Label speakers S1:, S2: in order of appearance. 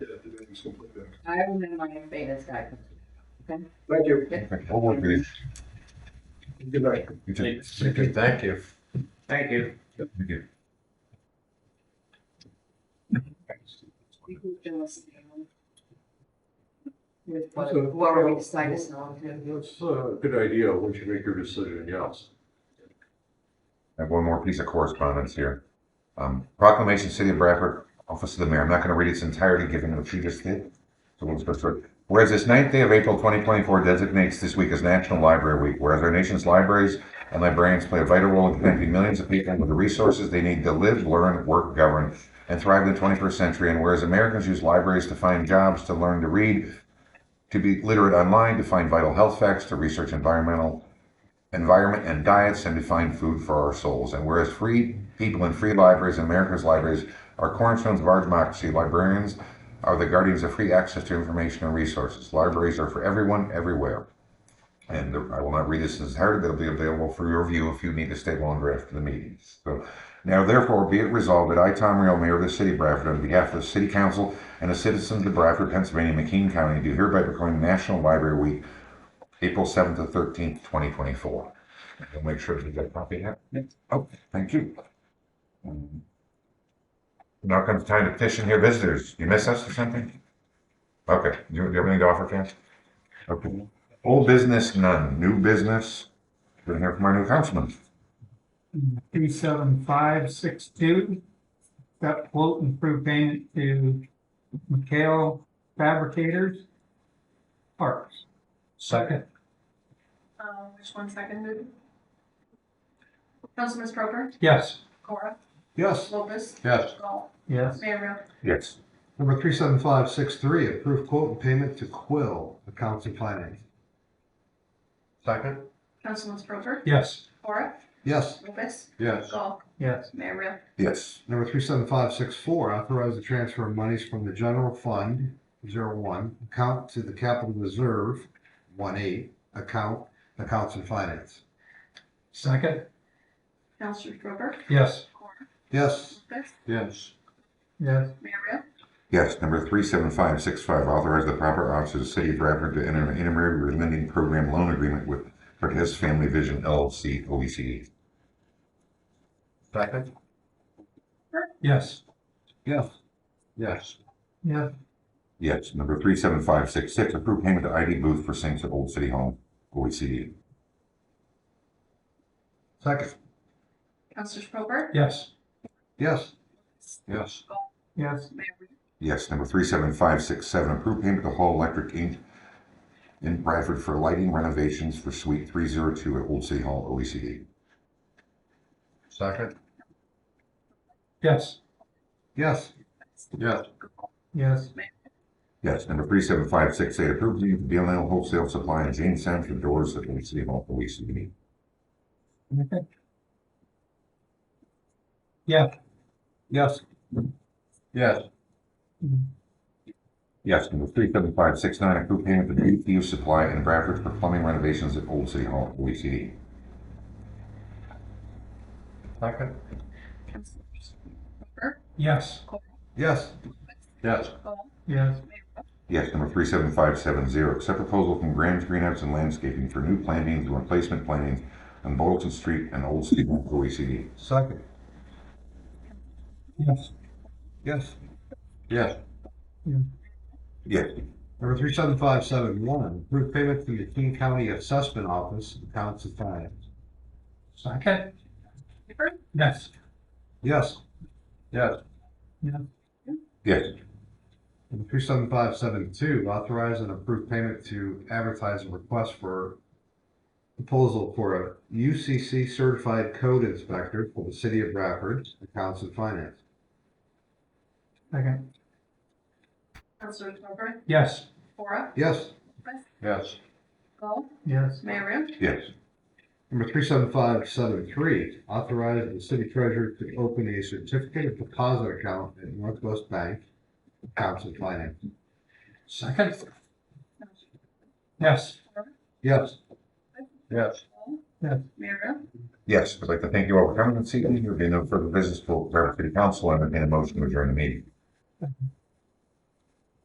S1: It's completely different.
S2: I will minimize Beta's guidance.
S1: Thank you.
S3: I'll work with you.
S1: Good night.
S3: You too.
S4: Thank you. Thank you.
S5: Thank you.
S3: Thank you.
S2: We can just, um, With what- whoever we decide is not to.
S1: That's a good idea, once you make your decision, yes.
S3: I have one more piece of correspondence here. Um, proclamation, City of Bradford, Office of the Mayor. I'm not going to read its entirety, given what you just did. So we'll just go through it. Whereas this ninth day of April 2024 designates this week as National Library Week, whereas our nation's libraries and librarians play a vital role in connecting millions of people with the resources they need to live, learn, work, govern, and thrive in the 21st century, and whereas Americans use libraries to find jobs, to learn to read, to be literate online, to find vital health facts, to research environmental environment and diets and to find food for our souls. And whereas free people in free libraries, and America's libraries, are cornerstones of our democracy, librarians are the guardians of free access to information and resources. Libraries are for everyone, everywhere. And the- I will not read this in its entirety, but it'll be available for your review if you need to stay longer after the meetings. So now therefore be it resolved that I, Tom Real, Mayor of the City of Bradford, on behalf of the City Council and the citizens of Bradford, Pennsylvania, McKean County, do hereby proclaim National Library Week, April 7th to 13th, 2024. We'll make sure that you get a copy of that. Oh, thank you. Um, Now comes time to petition your visitors. You miss us or something? Okay, you, you have anything to offer, Ken? Okay. Old business, none. New business, we're gonna hear from our new councilman.
S6: two seven five six two. Got quote and proof payment to McHale Fabricators Parts.
S4: Second.
S7: Um, just one second, dude. Councilman Proper,
S6: Yes.
S7: Cora,
S4: Yes.
S7: Lopez,
S4: Yes.
S7: Gall,
S6: Yes.
S7: Mayor Real.
S3: Yes.
S8: Number three seven five six three, approve quote and payment to Quill Accounts and Finance.
S4: Second.
S7: Councilman Proper,
S6: Yes.
S7: Cora,
S8: Yes.
S7: Lopez,
S4: Yes.
S7: Gall,
S6: Yes.
S7: Mayor Real.
S3: Yes.
S8: Number three seven five six four, authorize the transfer of monies from the general fund, zero one, account to the capital reserve, one eight, account, accounts and finance.
S6: Second.
S7: Councilman Proper,
S6: Yes.
S7: Cora,
S8: Yes.
S7: Lopez,
S4: Yes.
S6: Yes.
S7: Mayor Real.
S3: Yes, number three seven five six five, authorize the proper officer of the city of Bradford to enter an intermarriage lending program loan agreement with Cortez Family Vision LLC OECD.
S4: Second.
S6: Yes.
S4: Yes. Yes.
S6: Yes.
S3: Yes, number three seven five six six, approve payment to ID Booth for sinks at Old City Hall, E OECD.
S8: Second.
S7: Councilman Proper,
S6: Yes.
S8: Yes.
S4: Yes.
S6: Yes.
S7: Mayor Real.
S3: Yes, number three seven five six seven, approve payment to Hall Electric Inc. in Bradford for lighting renovations for suite three zero two at Old City Hall, E OECD.
S4: Second.
S6: Yes.
S8: Yes.
S4: Yes.
S6: Yes.
S3: Yes, number three seven five six eight, approve payment to BLL Wholesale Supply and Jamestown for doors at Old City Hall, OECD.
S4: Yes. Yes.
S3: Yes, number three seven five six nine, approve payment to DPU Supply in Bradford for plumbing renovations at Old City Hall, OECD.
S4: Second.
S7: Councilman Proper,
S6: Yes.
S8: Yes.
S4: Yes.
S7: Gall,
S6: Yes.
S7: Mayor Real.
S3: Yes, number three seven five seven zero, accept proposal from Graham's Greenhouse and Landscaping for new plantings and replacement plantings on Boylston Street and Old City Hall, OECD.
S8: Second.
S6: Yes.
S8: Yes.
S4: Yes.
S3: Yes,
S8: Number three seven five seven one, approve payment to the King County Assessment Office, accounts and finance.
S6: Second.
S7: Proper,
S6: Yes.
S8: Yes.
S4: Yes.
S3: yes,
S8: Number three seven five seven two, authorize and approve payment to advertise a request for proposal for a UCC certified code inspector for the city of Bradford, accounts and finance.
S6: Second.
S7: Councilman Proper,
S6: Yes.
S7: Cora,
S8: Yes.
S7: Lopez,
S4: Yes.
S7: Gall,
S6: Yes.
S7: Mayor Real.
S3: yes,
S8: Number three seven five seven three, authorize the city treasurer to open a certificate of deposit account at Northwest Bank, accounts and finance.
S6: Second.
S7: Councilman
S6: Yes.
S7: Proper,
S8: Yes.
S4: Yes.
S7: Gall,
S6: Yes.
S7: Mayor Real.
S3: yes. I'd like to thank you all for coming and seeing. There will be no further business for Bradford City Council and a motion to adjourn the meeting.